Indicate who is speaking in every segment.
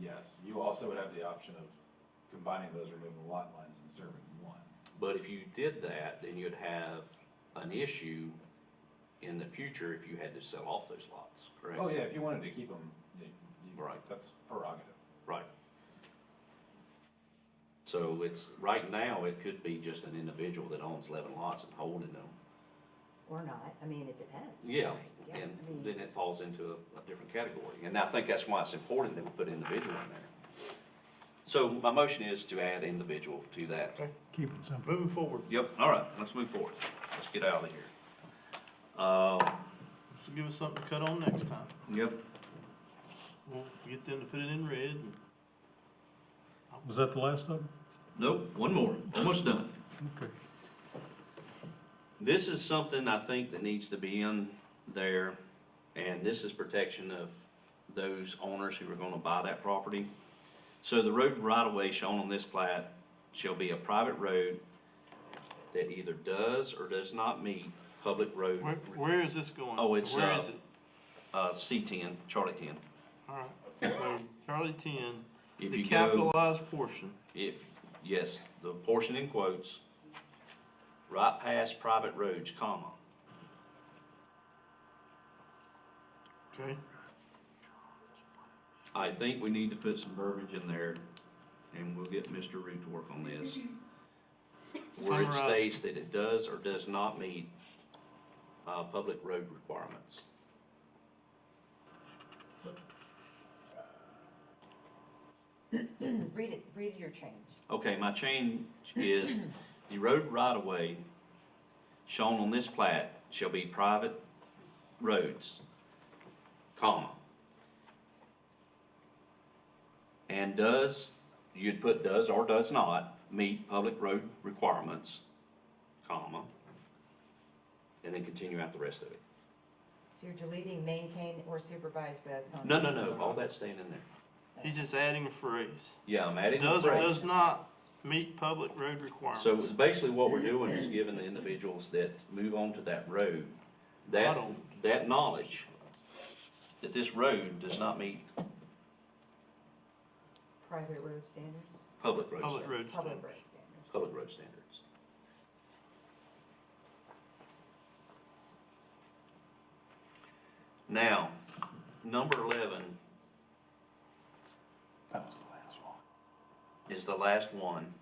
Speaker 1: yes, you also would have the option of combining those removing lot lines and serving one.
Speaker 2: But if you did that, then you'd have an issue in the future if you had to sell off those lots, correct?
Speaker 1: Oh, yeah, if you wanted to keep them, you, you,
Speaker 2: Right.
Speaker 1: that's prerogative.
Speaker 2: Right. So it's, right now, it could be just an individual that owns eleven lots and holding them.
Speaker 3: Or not, I mean, it depends.
Speaker 2: Yeah,
Speaker 3: Yeah,
Speaker 2: and
Speaker 3: I mean-
Speaker 2: then it falls into a, a different category, and I think that's why it's important that we put individual in there. So my motion is to add individual to that.
Speaker 4: Keep it simple.
Speaker 5: Moving forward,
Speaker 2: Yep, all right, let's move forward, let's get out of here. Uh,
Speaker 5: this will give us something to cut on next time.
Speaker 2: yep,
Speaker 5: We'll get them to put it in red and
Speaker 4: Was that the last of them?
Speaker 2: nope, one more, almost done.
Speaker 4: Okay.
Speaker 2: This is something I think that needs to be in there, and this is protection of those owners who are gonna buy that property. So the road right of way shown on this plat shall be a private road that either does or does not meet public road,
Speaker 5: where, where is this going?
Speaker 2: Oh, it's,
Speaker 5: Where
Speaker 2: uh,
Speaker 5: is it?
Speaker 2: uh, C ten, Charlie ten.
Speaker 5: Alright, so Charlie ten,
Speaker 2: If
Speaker 5: the
Speaker 2: you go,
Speaker 5: capitalized portion,
Speaker 2: if, yes, the portion in quotes, right past private roads, comma,
Speaker 5: okay?
Speaker 2: I think we need to put some verbiage in there, and we'll get Mr. Root to work on this. Where it
Speaker 5: Summarize.
Speaker 2: states that it does or does not meet, uh, public road requirements.
Speaker 3: Read it, read your change.
Speaker 2: Okay, my change is, the road right-of-way shown on this plat shall be private roads, comma. And does, you'd put does or does not meet public road requirements, comma, and then continue out the rest of it.
Speaker 3: So you're deleting maintain or supervised by a company.
Speaker 2: No, no, no, all that's staying in there.
Speaker 5: He's just adding a phrase.
Speaker 2: Yeah, I'm adding the
Speaker 5: Does or
Speaker 2: phrase.
Speaker 5: does not meet public road requirements.
Speaker 2: So basically what we're doing is giving the individuals that move onto that road,
Speaker 5: I
Speaker 2: that,
Speaker 5: don't-
Speaker 2: that knowledge that this road does not meet
Speaker 3: Private road standards,
Speaker 2: public road
Speaker 5: Public
Speaker 2: standards.
Speaker 5: road
Speaker 3: public
Speaker 5: standards.
Speaker 3: road standards.
Speaker 2: Public road standards. Now, number eleven
Speaker 4: That was the last one.
Speaker 2: is the last one.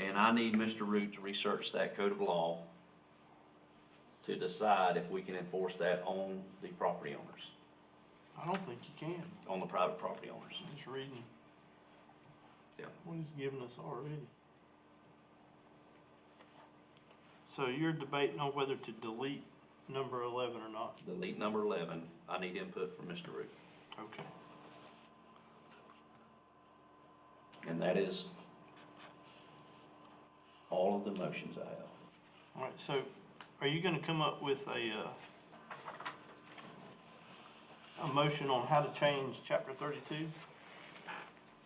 Speaker 2: And I need Mr. Root to research that code of law to decide if we can enforce that on the property owners.
Speaker 5: I don't think you can,
Speaker 2: on the private property owners.
Speaker 5: just reading.
Speaker 2: Yeah.
Speaker 5: What he's giving us already. So you're debating on whether to delete number eleven or not,
Speaker 2: Delete number eleven, I need input from Mr. Root.
Speaker 5: okay?
Speaker 2: And that is all of the motions I have.
Speaker 5: Alright, so are you gonna come up with a, uh, a motion on how to change chapter thirty-two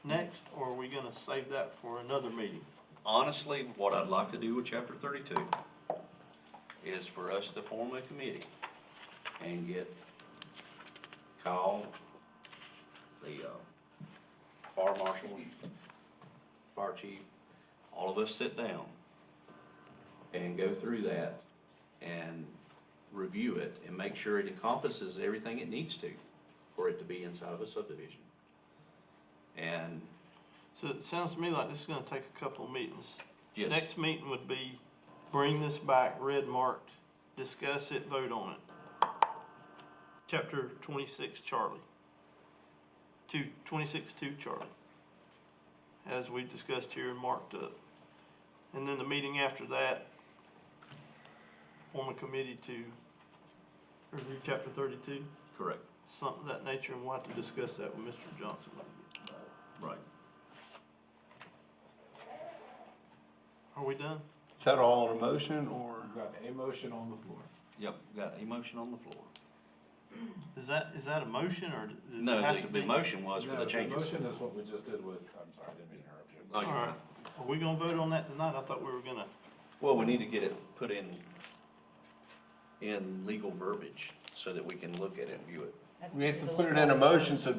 Speaker 5: next, or are we gonna save that for another meeting?
Speaker 2: Honestly, what I'd like to do with chapter thirty-two is for us to form a committee and get Kyle, the, uh, fire marshal, fire chief, all of us sit down and go through that and review it and make sure it encompasses everything it needs to for it to be inside of a subdivision. And,
Speaker 5: So it sounds to me like this is gonna take a couple of meetings.
Speaker 2: yes.
Speaker 5: Next meeting would be, bring this back, red marked, discuss it, vote on it. Chapter twenty-six, Charlie. Two, twenty-six, two, Charlie. As we discussed here and marked up. And then the meeting after that, form a committee to review chapter thirty-two,
Speaker 2: Correct,
Speaker 5: something of that nature, and we'll have to discuss that with Mr. Johnson.
Speaker 2: right.
Speaker 5: Are we done?
Speaker 6: Is that all in a motion or?
Speaker 1: We've got a motion on the floor.
Speaker 2: Yep, got a motion on the floor.
Speaker 5: Is that, is that a motion, or does it
Speaker 2: No,
Speaker 5: have to
Speaker 2: the,
Speaker 5: be?
Speaker 2: the motion was for
Speaker 1: No,
Speaker 2: the changes. Oh,
Speaker 1: motion is what we just did with, I'm sorry, I didn't mean to interrupt you.
Speaker 2: No, you're
Speaker 5: All right.
Speaker 2: fine.
Speaker 5: Are we gonna vote on that tonight? I thought we were gonna.
Speaker 2: Well, we need to get it put in, in legal verbiage so that we can look at it and view it.
Speaker 3: That's
Speaker 6: We have to
Speaker 3: the
Speaker 6: put it
Speaker 3: little-
Speaker 6: in a motion so